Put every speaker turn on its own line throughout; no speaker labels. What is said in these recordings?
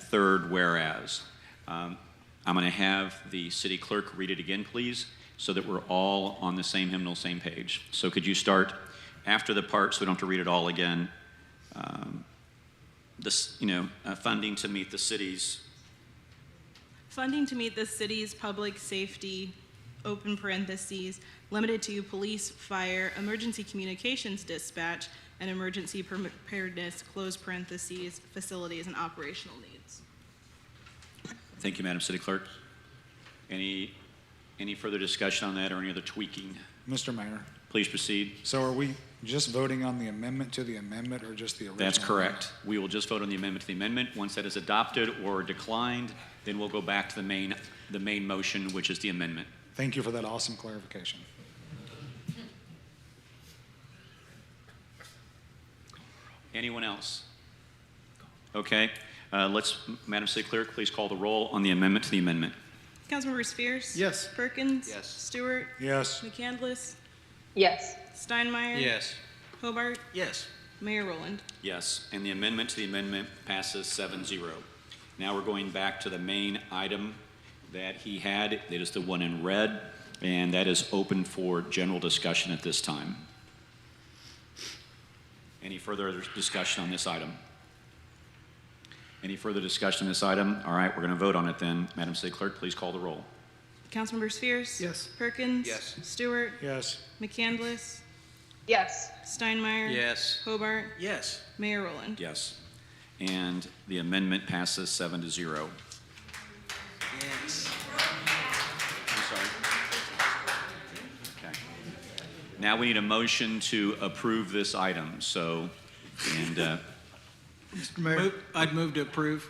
third whereas. Um, I'm going to have the city clerk read it again, please, so that we're all on the same hymnal, same page. So could you start after the part so we don't have to read it all again? Um, This, you know, uh, funding to meet the city's,
Funding to meet the city's public safety, open parentheses, limited to police, fire, emergency communications dispatch, and emergency preparedness, close parentheses, facilities and operational needs.
thank you, Madam City Clerk. Any, any further discussion on that or any other tweaking?
Mr. Mayor,
Please proceed.
so are we just voting on the amendment to the amendment or just the original?
That's correct. We will just vote on the amendment to the amendment. Once that is adopted or declined, then we'll go back to the main, the main motion, which is the amendment.
Thank you for that awesome clarification.
Anyone else? Okay, uh, let's, Madam City Clerk, please call the roll on the amendment to the amendment.
Councilmember Spears?
Yes.
Perkins?
Yes.
Stewart?
Yes,
McCandless?
yes,
Steinmeier?
Yes.
Hobart?
Yes.
Mayor Rowland?
Yes, and the amendment to the amendment passes 7-0. Now we're going back to the main item that he had, that is the one in red, and that is open for general discussion at this time. Any further discussion on this item? Any further discussion on this item? All right, we're going to vote on it then. Madam City Clerk, please call the roll.
Councilmember Spears?
Yes.
Perkins?
Yes.
Stewart?
yes,
McCandless?
yes,
Steinmeier?
Yes.
Hobart?
Yes.
Mayor Rowland?
Yes. And the amendment passes 7 to 0.
Yes.
I'm sorry. Okay. Now we need a motion to approve this item, so, and uh,
Mr. Mayor,
Move- I'd move to approve.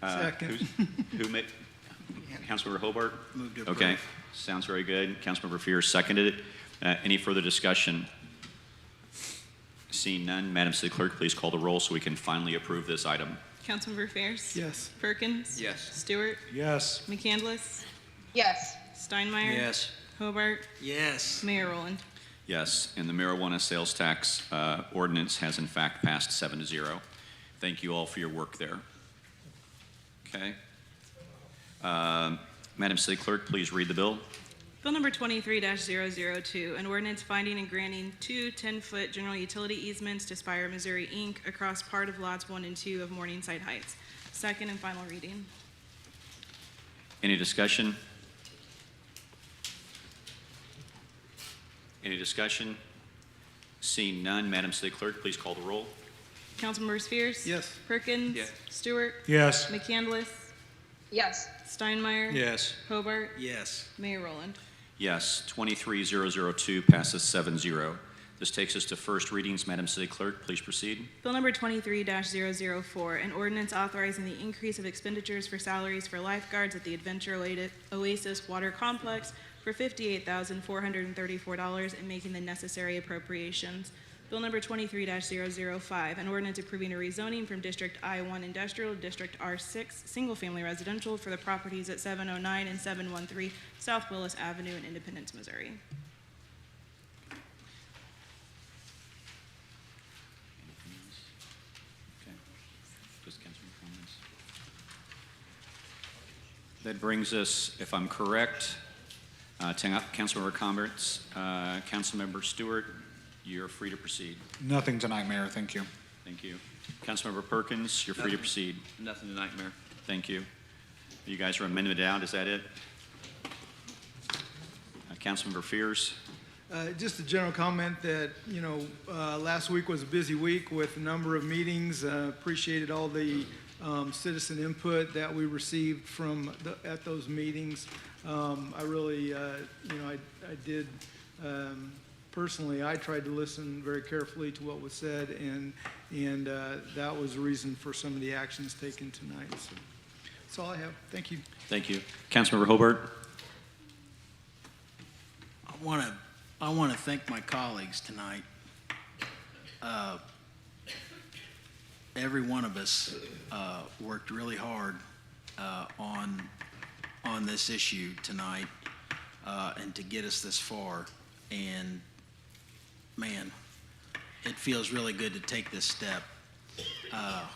second.
uh, who's- who made, Councilmember Hobart?
Move to
Okay,
approve.
sounds very good. Councilmember Fear seconded it. Uh, Any further discussion? Seeing none, Madam City Clerk, please call the roll so we can finally approve this item.
Councilmember Fairs?
Yes,
Perkins?
Yes.
Stewart?
yes,
McCandless?
yes,
Steinmeier? Hobart?
Yes.
Mayor Rowland?
Yes, and the marijuana sales tax uh, ordinance has in fact passed seven to zero. Thank you all for your work there. Okay. Um, Madam City Clerk, please read the bill.
Bill number 23-002, an ordinance finding and granting two 10-foot general utility easements to Spire Missouri, Inc. across part of lots 1 and 2 of Morningside Heights. Second and final reading.
Any discussion? Any discussion? Seeing none, Madam City Clerk, please call the roll.
Councilmember Fierce.
Yes.
Perkins.
Yes.
Stewart.
yes,
McCandless.
yes,
Steinmeier.
Yes.
Hobart.
Yes.
Mayor Rowland.
Yes, 23002 passes seven zero. This takes us to first readings. Madam City Clerk, please proceed.
Bill number 23-004, an ordinance authorizing the increase of expenditures for salaries for lifeguards at the Adventure Oa- Oasis Water Complex for $58,434 and making the necessary appropriations. Bill number 23-005, an ordinance approving a rezoning from District I-1 Industrial to District R-6 Single Family Residential for the properties at 709 and 713 South Willis Avenue in Independence, Missouri.
Okay. Just council comments. That brings us, if I'm correct, uh, to councilmember comments. Uh, Councilmember Stewart, you're free to proceed.
nothing tonight, Mayor, thank you.
Thank you. Councilmember Perkins, you're free to
Nothing.
proceed.
Nothing tonight, Mayor.
Thank you. You guys are amended out, is that it? Uh, Councilmember Fears?
Uh, Just a general comment that, you know, uh, last week was a busy week with a number of meetings. Uh, Appreciated all the um, citizen input that we received from, the- at those meetings. Um, I really, uh, you know, I I did, um, personally, I tried to listen very carefully to what was said, and, and uh, that was the reason for some of the actions taken tonight. So That's all I have. Thank you.
Thank you. Councilmember Hobart?
I want to, I want to thank my colleagues tonight. Uh, Every one of us uh, worked really hard uh, on, on this issue tonight uh, and to get us this far. And man, it feels really good to take this step. Uh,